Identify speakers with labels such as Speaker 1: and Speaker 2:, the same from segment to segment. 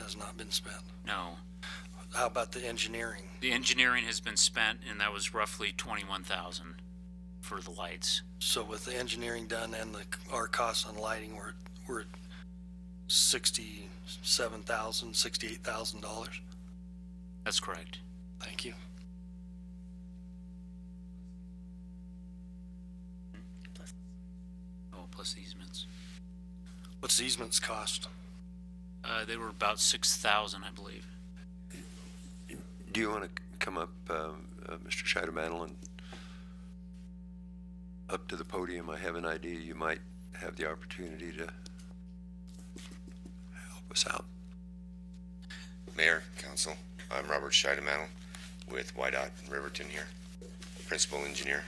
Speaker 1: has not been spent.
Speaker 2: No.
Speaker 1: How about the engineering?
Speaker 2: The engineering has been spent and that was roughly twenty-one thousand for the lights.
Speaker 1: So with the engineering done and the, our costs on lighting, we're, we're at sixty-seven thousand, sixty-eight thousand dollars.
Speaker 2: That's correct.
Speaker 1: Thank you.
Speaker 2: Oh, plus easements.
Speaker 1: What's the easements cost?
Speaker 2: Uh, they were about six thousand, I believe.
Speaker 3: Do you want to come up, um, uh, Mr. Scheidemantel, and up to the podium? I have an idea you might have the opportunity to help us out.
Speaker 4: Mayor, Council, I'm Robert Scheidemantel with YDOT Riverton here, Principal Engineer.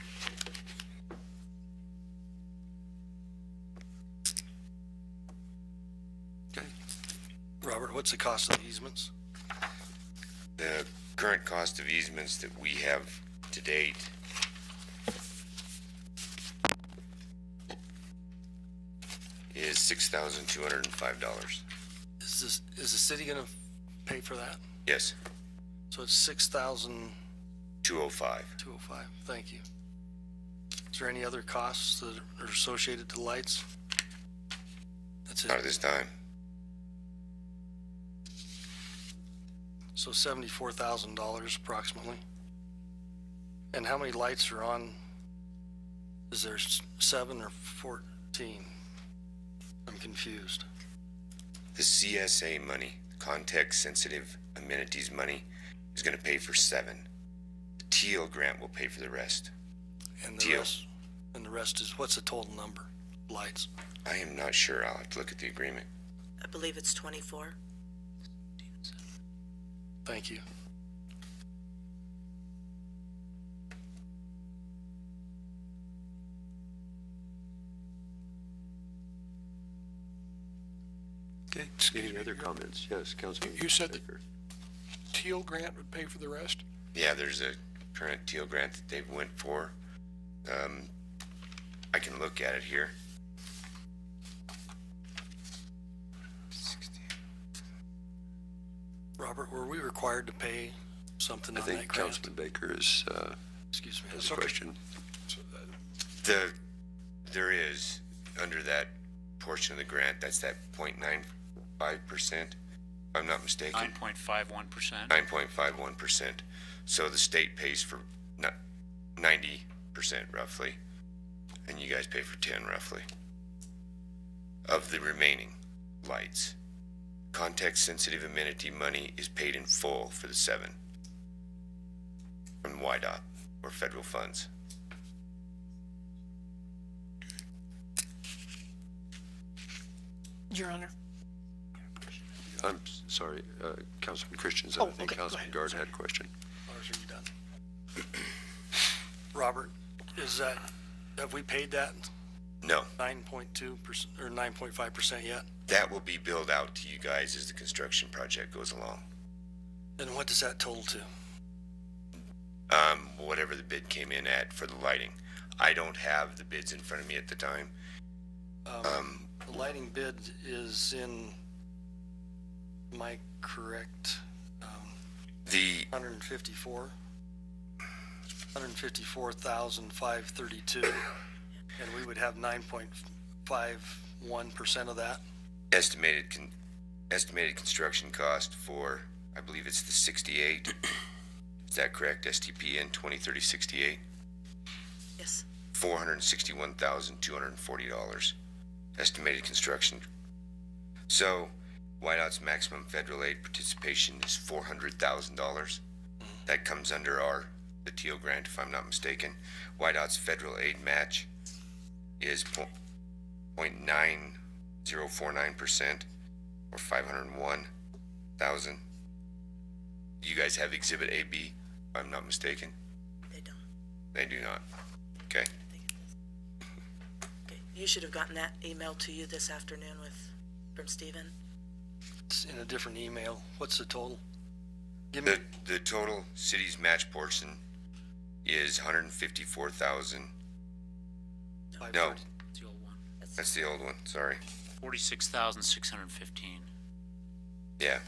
Speaker 3: Okay.
Speaker 1: Robert, what's the cost of the easements?
Speaker 4: The current cost of easements that we have to date is six thousand two hundred and five dollars.
Speaker 1: Is this, is the city gonna pay for that?
Speaker 4: Yes,
Speaker 1: So it's six thousand
Speaker 4: two oh five.
Speaker 1: two oh five. Thank you. Is there any other costs that are associated to lights? That's
Speaker 4: Not at
Speaker 1: it.
Speaker 4: this time.
Speaker 1: So seventy-four thousand dollars approximately. And how many lights are on? Is there s- seven or fourteen? I'm confused.
Speaker 4: The CSA money, context sensitive amenities money, is gonna pay for seven. The teal grant will pay for the rest.
Speaker 1: And the
Speaker 4: Deal.
Speaker 1: rest, and the rest is, what's the total number? Lights?
Speaker 4: I am not sure. I'll have to look at the agreement.
Speaker 5: I believe it's 24.
Speaker 1: Thank you.
Speaker 3: Okay, any other comments? Yes, Councilman.
Speaker 6: You said that-
Speaker 3: Baker.
Speaker 6: Teal grant would pay for the rest?
Speaker 4: Yeah, there's a current teal grant that they've went for. Um, I can look at it here.
Speaker 1: Robert, were we required to pay something
Speaker 3: I
Speaker 1: on that
Speaker 3: think
Speaker 1: grant?
Speaker 3: Councilman Baker is, uh,
Speaker 1: Excuse me.
Speaker 3: has a question.
Speaker 4: The, there is, under that portion of the grant, that's that point nine five percent, if I'm not
Speaker 2: Nine
Speaker 4: mistaken,
Speaker 2: point five one percent.
Speaker 4: nine point five one percent. So the state pays for ninety percent roughly, and you guys pay for ten roughly of the remaining lights. Context-sensitive amenity money is paid in full for the seven from YDOT or federal funds.
Speaker 7: Your Honor,
Speaker 3: I'm s- sorry, uh, Councilman Christensen,
Speaker 7: Oh,
Speaker 3: I think
Speaker 7: okay, go
Speaker 3: Councilman
Speaker 7: ahead.
Speaker 3: Guard had a question.
Speaker 1: Lars, are you done? Robert, is that, have we paid that
Speaker 4: No,
Speaker 1: nine point two percent, or nine point five percent yet?
Speaker 4: that will be billed out to you guys as the construction project goes along.
Speaker 1: And what does that total to?
Speaker 4: um, whatever the bid came in at for the lighting. I don't have the bids in front of me at the time. Um,
Speaker 1: The lighting bid is in, am I correct? Um,
Speaker 4: the,
Speaker 1: 154, 154,532, and we would have 9.51% of that.
Speaker 4: estimated con- estimated construction cost for I believe it's the 68. Is that correct? STPN 203068,
Speaker 5: Yes.
Speaker 4: four hundred sixty-one thousand two hundred forty dollars, estimated construction. So, Whiteout's maximum federal aid participation is four hundred thousand dollars. That comes under our the TO grant, if I'm not mistaken. Whiteout's federal aid match is po- point nine zero four nine percent, or five hundred one thousand. You guys have Exhibit AB, if I'm not mistaken.
Speaker 5: They don't.
Speaker 4: They do not. Okay.
Speaker 5: I think it is. Okay. You should have gotten that email to you this afternoon with, from Stephen.
Speaker 1: It's in a different email. What's the total? Give me,
Speaker 4: The, the total city's match portion is hundred and fifty-four thousand,
Speaker 1: five
Speaker 4: no,
Speaker 1: thirty.
Speaker 4: that's the old one, sorry.
Speaker 2: Forty-six thousand six hundred fifteen.
Speaker 4: Yeah,